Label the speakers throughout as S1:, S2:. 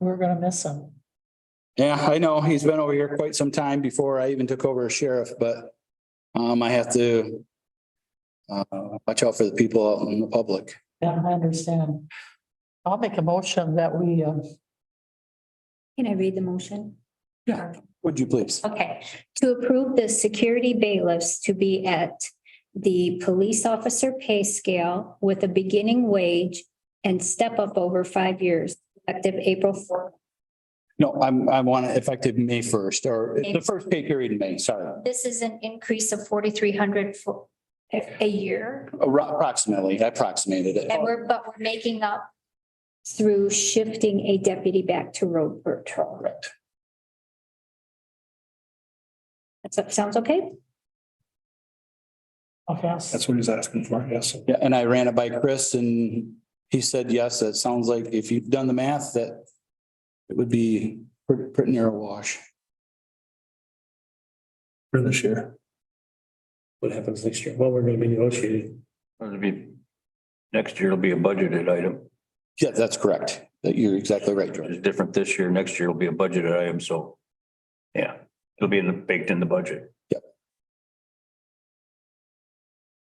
S1: We're gonna miss him.
S2: Yeah, I know. He's been over here quite some time before I even took over as sheriff, but um, I have to uh, watch out for the people out in the public.
S1: Yeah, I understand. I'll make a motion that we, uh,
S3: Can I read the motion?
S2: Yeah. Would you please?
S3: Okay, to approve the security bailiffs to be at the police officer pay scale with a beginning wage and step up over five years, effective April fourth.
S2: No, I'm, I want it effective May first or the first pay period in May, sorry,
S3: This is an increase of forty-three hundred for a year,
S2: Appro- approximately, I approximated it.
S3: and we're, but we're making up through shifting a deputy back to road patrol.
S2: Correct.
S3: That sounds okay?
S1: okay, I'll s-
S4: That's what he's asking for, yes.
S2: Yeah, and I ran it by Chris and he said, yes, that sounds like if you've done the math, that it would be pretty, pretty near a wash.
S4: For this year. What happens next year? Well, we're gonna be negotiating.
S5: It'll be, next year will be a budgeted item.
S2: Yeah, that's correct. That you're exactly right, George.
S5: It's different this year. Next year will be a budgeted item, so. Yeah, it'll be in the, baked in the budget.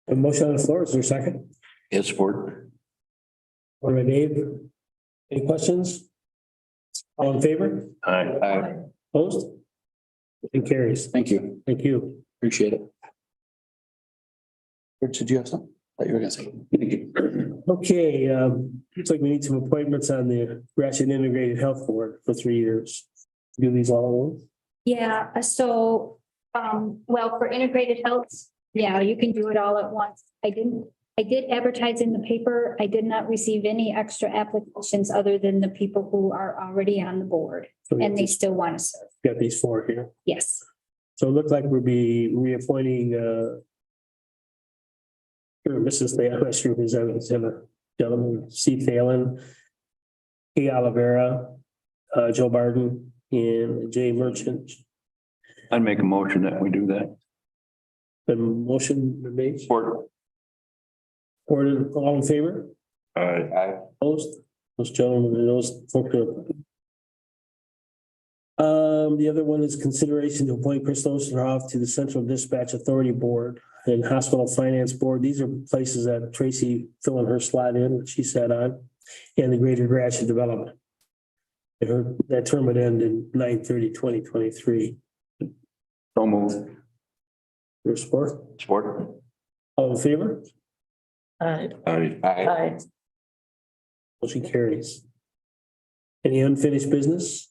S4: A motion on the floor, is there a second?
S5: Yes, support.
S4: Or by Dave? Any questions? All in favor?
S5: Aye.
S4: Opposed? Motion carries.
S2: Thank you.
S4: Thank you.
S2: Appreciate it. Rich, did you have something that you were gonna say? Thank you.
S4: Okay, um, looks like we need some appointments on the Gratiot Integrated Health Board for three years. Do these all
S3: Yeah, uh, so, um, well, for integrated health, yeah, you can do it all at once. I didn't, I did advertise in the paper. I did not receive any extra applications other than the people who are already on the board
S4: at once?
S3: and they still want to serve.
S4: Got these four here.
S3: Yes.
S4: So it looked like we'll be reappointing, uh. Or Mrs. Thalen, that's representative, Taylor, gentleman, C. Thalen. Kay Olivera, uh, Joe Barden and Jay Merchant.
S5: I'd make a motion that we do that.
S4: The motion been made,
S5: Support.
S4: or all in favor,
S5: Aye.
S4: opposed, those gentlemen, and those folks are. Um, the other one is consideration to appoint Chris Osterhoff to the Central Dispatch Authority Board and Hospital Finance Board. These are places that Tracy filling her slot in, that she sat on, and the Greater Gratiot Development. And her- that term would end in 9/30, 2023.
S5: So move.
S4: Your support,
S5: Support.
S4: all in favor?
S1: I,
S5: Aye.
S1: I,
S4: Motion carries. Any unfinished business?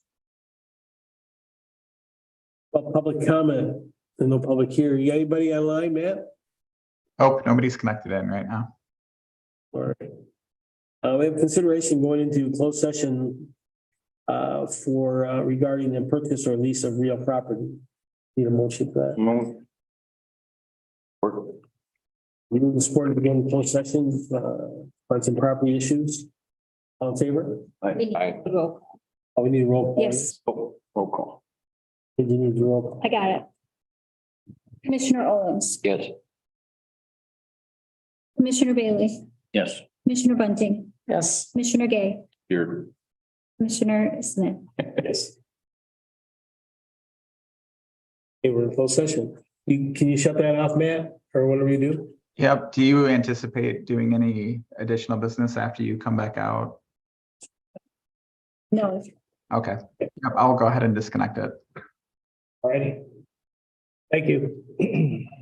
S4: Well, Public comment, There's no public here. You got anybody online, Matt?
S6: Oh, nobody's connected in right now.
S4: Or, uh, we have consideration going into closed session uh, for uh, regarding the purchase or lease of real property. Need a motion for that.
S5: Move. Support.
S4: We move the support to begin closed session, uh, on some property issues. All in favor?
S3: We need
S5: Aye.
S3: to roll.
S4: Oh, we need a roll. call.
S3: Yes,
S5: Oh, Roll call.
S4: We do need a roll. call.
S3: I got it. Commissioner Owens,
S5: Yes.
S3: Commissioner Bailey,
S5: Yes.
S3: Commissioner Bunting,
S1: yes.
S3: Commissioner Gay,
S5: Here.
S3: Commissioner Smith.
S5: Yes.
S4: Hey, we're in closed session. You, can you shut that off, Matt, or whatever you do?
S6: Yep. Do you anticipate doing any additional business after you come back out?
S3: No,
S6: Okay. Yep, I'll go ahead and disconnect it.
S4: Alrighty. Thank you.